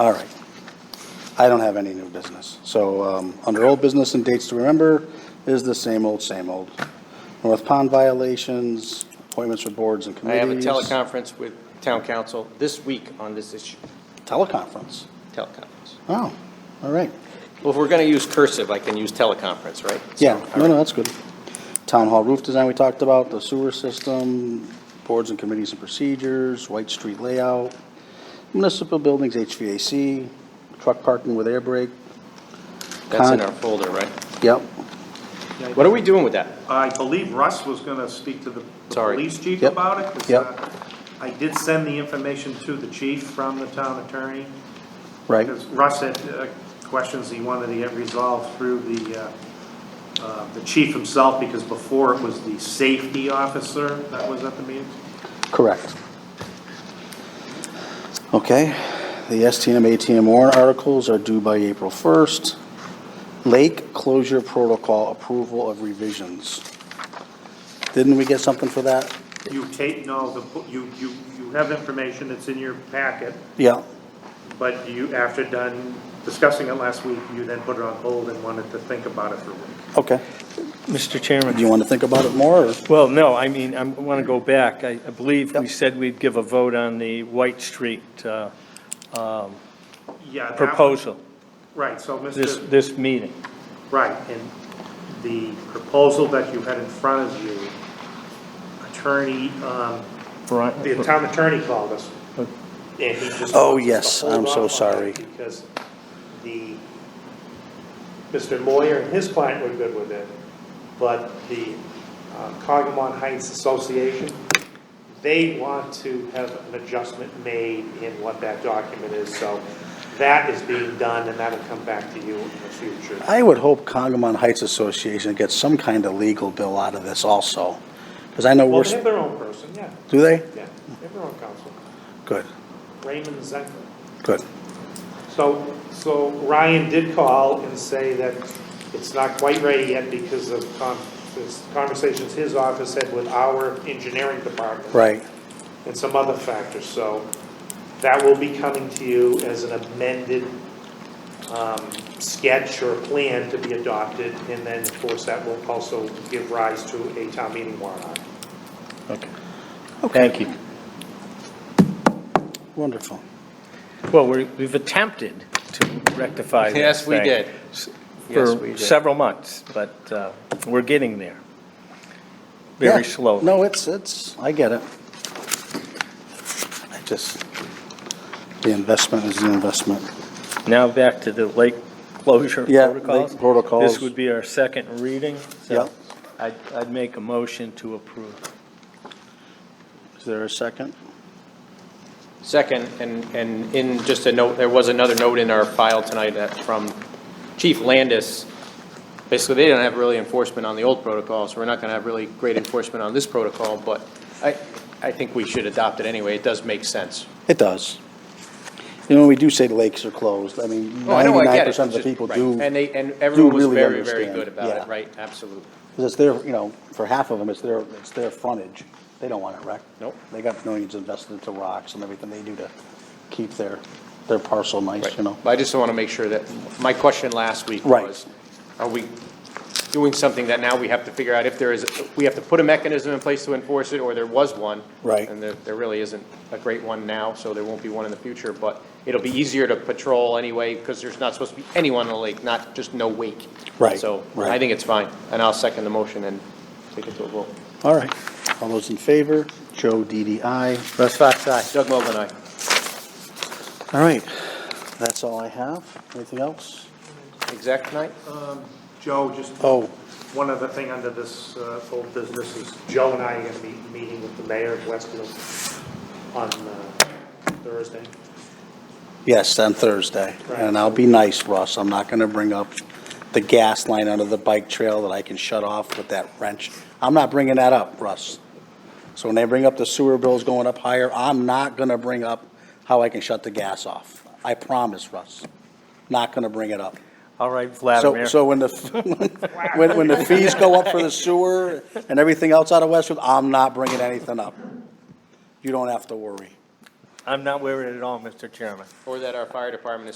All right. I don't have any new business. So um, under old business and dates to remember is the same old, same old. North Pond violations, appointments for boards and I have a committees. teleconference with town council this week on this issue, Teleconference. teleconference. Oh, all right. Well, if we're going to use cursive, I can use teleconference, right? Yeah, no, no, that's good. Town hall roof design we talked about, the sewer system, boards and committees and procedures, White Street layout, municipal buildings, HVAC, truck parking with air brake, That's in our folder, right? yep. What are we doing with that? I believe Russ was gonna speak to the the Sorry. police chief Yep. about it. 'cause, Yep. uh, I did send the information to the chief from the town attorney, Right, because Russ had uh, questions he wanted to get resolved through the, uh, uh, the chief himself, because before it was the safety officer that was at the meeting. correct. Okay, the STM, ATM warrant articles are due by April 1st. Lake closure protocol approval of revisions. Didn't we get something for that? You take, no, the, po- you, you, you have information that's in your packet, Yeah, but you, after done discussing it last week, you then put it on hold and wanted to think about it for a week. okay. Mr. Do Chairman, you want to think about it more, or? well, no, I mean, I want to go back. I I believe we said we'd give a vote on the White Street uh, Yeah. that one- proposal, Right, so this, Mr. this meeting. Right, and the proposal that you had in front of you, attorney, um, the town attorney called us. and he just Oh, yes, wanted to I'm so hold off on sorry. that Because the, Mr. Moyer and his client were good with it, but the uh, Congamon Heights Association, they want to have an adjustment made in what that document is, so that is being done, and that'll come back to you in the future. I would hope Congamon Heights Association gets some kind of legal bill out of this also, because I know Well, we're, they have their own person, yeah, do they? yeah, they have their own counsel, Good, Raymond Zenker. good. So, so Ryan did call and say that it's not quite ready yet because of con- this conversations his office had with our engineering department. Right, And some other factors, so that will be coming to you as an amended um, sketch or plan to be adopted. And then, of course, that will also give rise to a town meeting warrant article. Okay. Thank you. wonderful. Well, we- we've attempted to rectify this Yes, we thing did. s- Yes, we For did. several months, but uh, we're getting there. Very Yeah. slowly. No, it's, it's, I get it. I just, the investment is the investment. Now back to the lake closure Yeah, protocols. lake protocols. This would be our second reading, so Yep. I'd, I'd make a motion to approve. Is there a second? Second, and, and in just a note, there was another note in our file tonight that from Chief Landis. Basically, they didn't have really enforcement on the old protocol, so we're not gonna have really great enforcement on this protocol, but I, I think we should adopt it anyway. It does make sense. It does. You know, we do say the lakes are closed, I mean, Oh, I know, I get ninety-nine it. percent of the Just- people right. do. And they, and everyone was really very, very understand. good about Yeah. it, right? Absolutely. Because it's their, you know, for half of them, it's their, it's their frontage. They don't want it wrecked. Nope. They got millions invested into rocks and everything they do to keep their, their parcel nice, you know? But I just want to make sure that, my question last week Right. was, are we doing something that now we have to figure out if there is, we have to put a mechanism in place to enforce it, or there was one? Right. And there, there really isn't a great one now, so there won't be one in the future, but it'll be easier to patrol anyway, because there's not supposed to be anyone in the lake, not, just no wake. Right, So I right. think it's fine, and I'll second the motion and take it to a vote. All right. All those in favor? Joe DDI. Russ Fox, aye. Doug Mogul, aye. All right. That's all I have. Anything else? Exec tonight? Joe, just Oh, One other thing under this uh, old business is Joe and I are going to be meeting with the mayor of Westfield on uh, Thursday. yes, on Thursday. And I'll be nice, Russ. I'm not gonna bring up the gas line under the bike trail that I can shut off with that wrench. I'm not bringing that up, Russ. So when they bring up the sewer bills going up higher, I'm not gonna bring up how I can shut the gas off. I promise, Russ. Not gonna bring it up. All right, So, Vladimir. so when the, when, when the fees go up for the sewer and everything else out of Westfield, I'm not bringing anything up. You don't have to worry. I'm not wearing it at all, Mr. Chairman. or that our fire department is